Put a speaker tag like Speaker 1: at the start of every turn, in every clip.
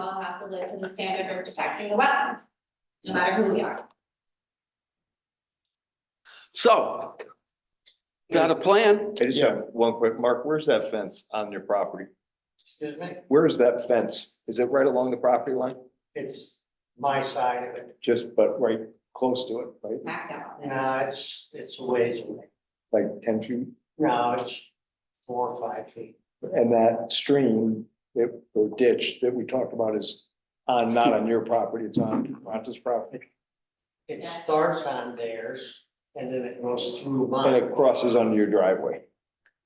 Speaker 1: have to live to the standard of protecting the wetlands, no matter who we are.
Speaker 2: So. Got a plan?
Speaker 3: I just have one quick, Mark, where's that fence on your property?
Speaker 4: Excuse me?
Speaker 3: Where is that fence? Is it right along the property line?
Speaker 4: It's my side of it.
Speaker 3: Just, but right close to it, right?
Speaker 1: Smack down.
Speaker 4: No, it's, it's a ways away.
Speaker 3: Like ten feet?
Speaker 4: No, it's four or five feet.
Speaker 3: And that stream that, or ditch that we talked about is on, not on your property, it's on Ronta's property.
Speaker 4: It starts on theirs and then it goes through
Speaker 3: And
Speaker 4: mine.
Speaker 3: it crosses under your driveway.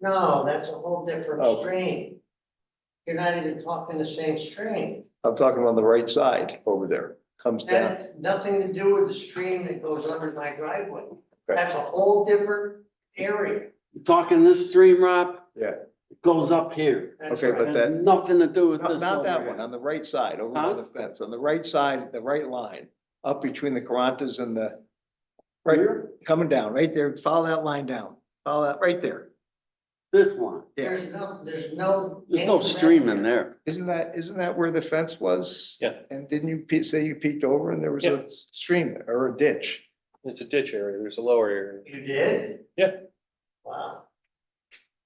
Speaker 4: No, that's a whole different
Speaker 3: Oh.
Speaker 4: stream. You're not even talking the same stream.
Speaker 3: I'm talking on the right side over there, comes
Speaker 4: That
Speaker 3: down.
Speaker 4: has nothing to do with the stream that goes under my driveway.
Speaker 3: Okay.
Speaker 4: That's a whole different area.
Speaker 2: You Talking this stream, Rob?
Speaker 3: Yeah.
Speaker 2: It Goes up here.
Speaker 4: That's
Speaker 3: Okay,
Speaker 4: right.
Speaker 3: But
Speaker 2: Has
Speaker 3: that-
Speaker 2: Nothing to do with
Speaker 3: No,
Speaker 2: this.
Speaker 3: Not
Speaker 2: over
Speaker 3: that
Speaker 2: here.
Speaker 3: one, on the right side, over by
Speaker 2: Huh?
Speaker 3: the fence, on the right side, the right line, up between the Carantas and the, right,
Speaker 2: Here?
Speaker 3: coming down, right there, follow that line down, follow that, right there.
Speaker 2: This one.
Speaker 3: Yeah,
Speaker 4: There's no, there's no.
Speaker 2: There's no stream in there.
Speaker 3: isn't that, isn't that where the fence was?
Speaker 5: Yeah.
Speaker 3: And didn't you pe- say you peeked over and there was
Speaker 5: Yeah.
Speaker 3: a stream there, or a ditch?
Speaker 5: It's a ditch area, there's a lower area.
Speaker 4: You did?
Speaker 5: Yeah.
Speaker 4: Wow.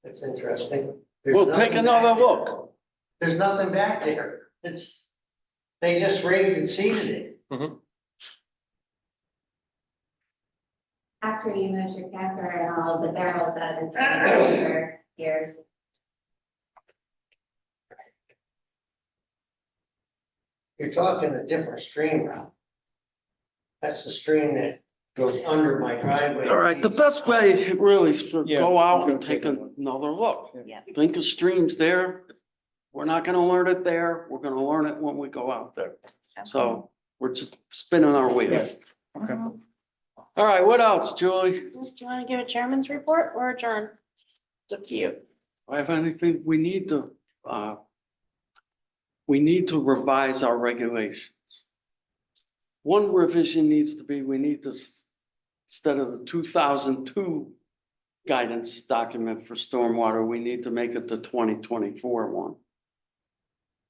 Speaker 4: That's interesting. There's
Speaker 2: We'll take
Speaker 4: nothing back
Speaker 2: another
Speaker 4: there.
Speaker 2: look.
Speaker 4: There's nothing back there. It's, they just raised and seeded it.
Speaker 1: After you moved your camper and all of the barrels that have been sitting there for years.
Speaker 4: You're talking a different stream route. That's the stream that goes under my driveway.
Speaker 2: All right, the best way really is to
Speaker 3: Yeah,
Speaker 2: go out
Speaker 3: we'll
Speaker 2: and
Speaker 3: go
Speaker 2: take
Speaker 3: take a look.
Speaker 2: another look.
Speaker 1: Yeah.
Speaker 2: Think of streams there. We're not gonna learn it there. We're gonna learn it when we go out there. So we're just spinning our wheels.
Speaker 3: Okay.
Speaker 2: All right, what else, Julie?
Speaker 6: Liz, Do you want to give a chairman's report or adjourn? It's up to you.
Speaker 2: Do I have anything, we need to, uh, we need to revise our regulations. One revision needs to be, we need to, s- instead of the two thousand two guidance document for stormwater, we need to make it the twenty twenty-four one.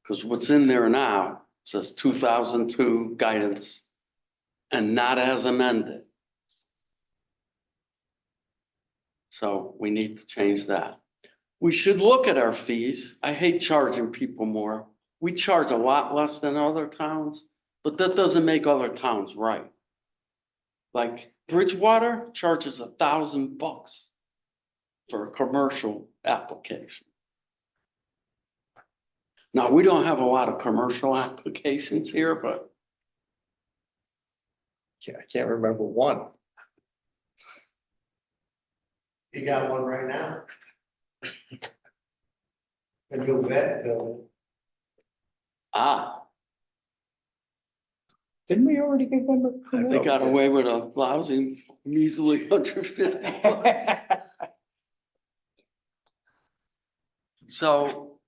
Speaker 2: Because what's in there now says two thousand two guidance and not as amended. So we need to change that. We should look at our fees. I hate charging people more. We charge a lot less than other towns, but that doesn't make other towns right. Like Bridgewater charges a thousand bucks for a commercial application. Now, we don't have a lot of commercial applications here, but
Speaker 3: Yeah, I can't remember one.
Speaker 4: You got one right now. The new vet building.
Speaker 2: ah,
Speaker 3: Didn't we already give them a?
Speaker 2: they got away with a lousy measly hundred fifty bucks. So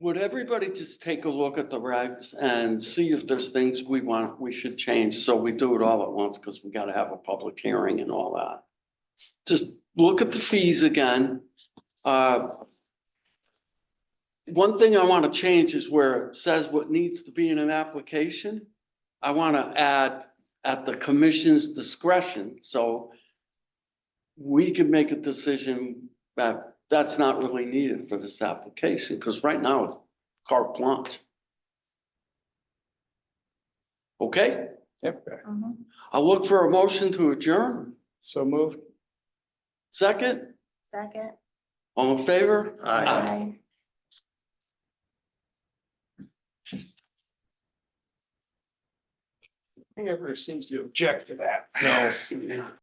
Speaker 2: would everybody just take a look at the regs and see if there's things we want, we should change? So we do it all at once because we gotta have a public hearing and all that. Just look at the fees again. Uh, One thing I want to change is where it says what needs to be in an application. I want to add at the commission's discretion, so we can make a decision that Uh, that's not really needed for this application, because right now it's carte blanche. Okay,
Speaker 1: Mm-hmm.
Speaker 2: I'll look for a motion to adjourn.
Speaker 3: So moved.
Speaker 2: Second,
Speaker 6: Second.
Speaker 2: all in favor?
Speaker 3: Aye.
Speaker 6: Aye.
Speaker 3: Never seems to object to that.
Speaker 2: No. Yeah.